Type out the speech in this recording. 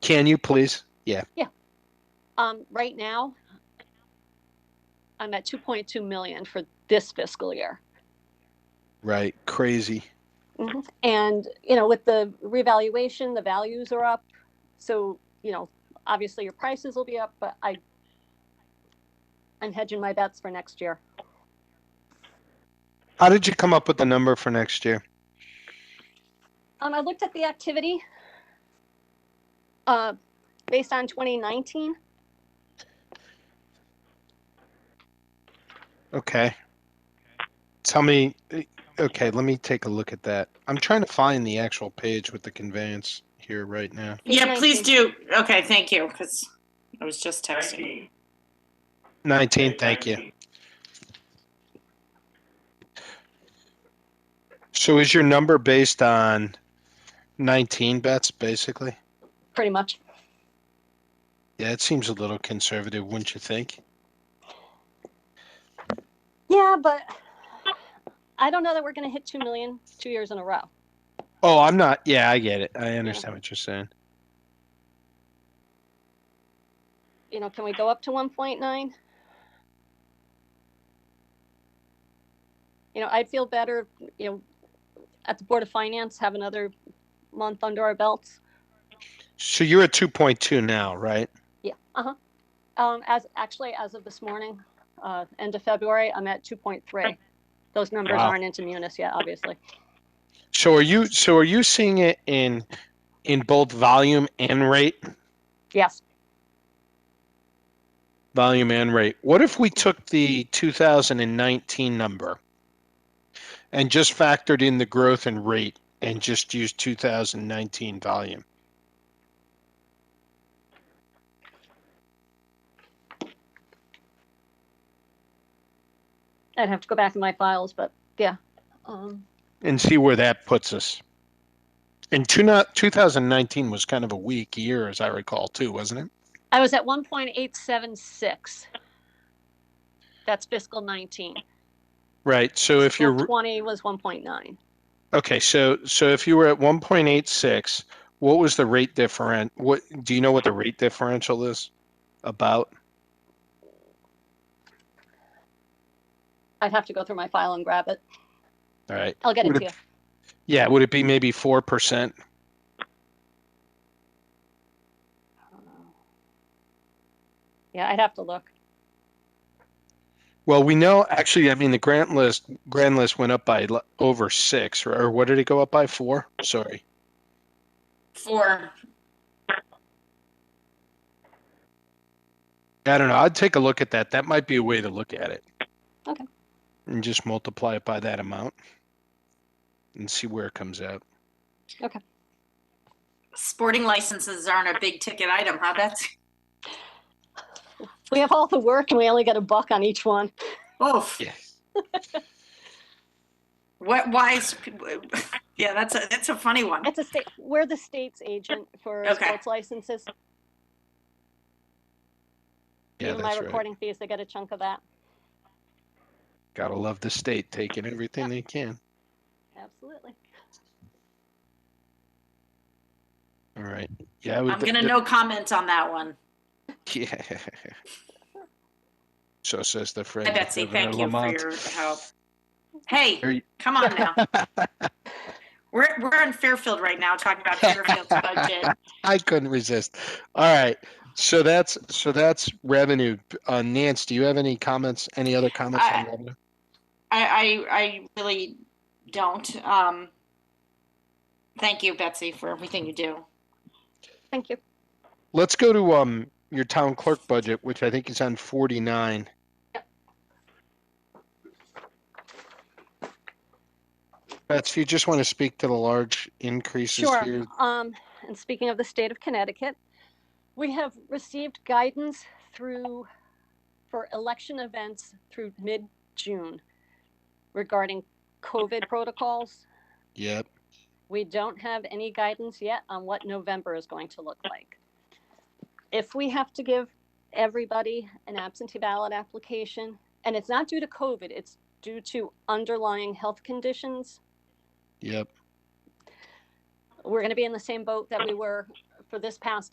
Can you please? Yeah. Um, right now, I'm at two point two million for this fiscal year. Right. Crazy. And, you know, with the revaluation, the values are up. So, you know, obviously your prices will be up, but I, I'm hedging my bets for next year. How did you come up with the number for next year? Um, I looked at the activity, uh, based on twenty nineteen. Okay. Tell me. Okay, let me take a look at that. I'm trying to find the actual page with the conveyance here right now. Yeah, please do. Okay, thank you, because I was just texting. 19, thank you. So is your number based on 19 bets, basically? pretty much. Yeah, it seems a little conservative, wouldn't you think? Yeah, but I don't know that we're gonna hit two million two years in a row. Oh, I'm not. Yeah, I get it. I understand what you're saying. You know, can we go up to one point nine? You know, I'd feel better, you know, at the Board of Finance, have another month under our belts. So you're at 2.2 now, right? Yeah, uh-huh. Um, as, actually, as of this morning, uh, end of February, I'm at two point three. Those numbers Wow. aren't into Munis yet, obviously. So are you so are you seeing it in in both volume and rate? Yes, volume and rate. What if we took the 2019 number and just factored in the growth and rate and just used 2019 volume? I'd have to go back in my files, but yeah. Um, and see where that puts us. And two, 2019 was kind of a weak year, as I recall, too, wasn't it? I was at one point eight seven six. That's fiscal nineteen. Right. So if Fiscal you're Twenty was one point nine. okay, so so if you were at 1.86, what was the rate different? What do you know what the rate differential is about? I'd have to go through my file and grab it. All right. I'll get it Would to you. Yeah. Would it be maybe four percent? Yeah, I'd have to look. Well, we know actually. I mean, the grant list grand list went up by l- over six, or, or what did it go up by? Four. Sorry. Four. I don't know. I'd take a look at that. That might be a way to look at it. Okay. And just multiply it by that amount, and see where it comes out. Sporting licenses aren't a big ticket item, huh, Betsy? We have all the work and we only get a buck on each one. Oof. Yes. What, why is, yeah, that's a, that's a funny one. It's a state, we're the state's agent for Okay. sports licenses. Yeah, Even my that's right. recording fees, they get a chunk of that. Gotta love the state taking everything they can. Absolutely. All right. Yeah. I would- I'm gonna no comment on that one. Yeah. So says the friend. Hi, of Betsy, Governor thank you for Lamont. your help. Are Hey, you- come on now. We're, we're in Fairfield right now, talking about Fairfield's budget. I couldn't resist. All right. So that's so that's revenue. Uh, Nance, do you have any comments? Any other comments on I- revenue? I, I, I really don't. Um, thank you, Betsy, for everything you do. Thank you. Let's go to um your town clerk budget, which I think is on forty nine. Betsy, you just want to speak to the large increases Sure. here. Um, and speaking of the state of Connecticut, we have received guidance through, for election events through mid-June regarding COVID protocols. Yep. We don't have any guidance yet on what November is going to look like. If we have to give everybody an absentee ballot application, and it's not due to COVID, it's due to underlying health conditions, Yep. we're going to be in the same boat that we were for this past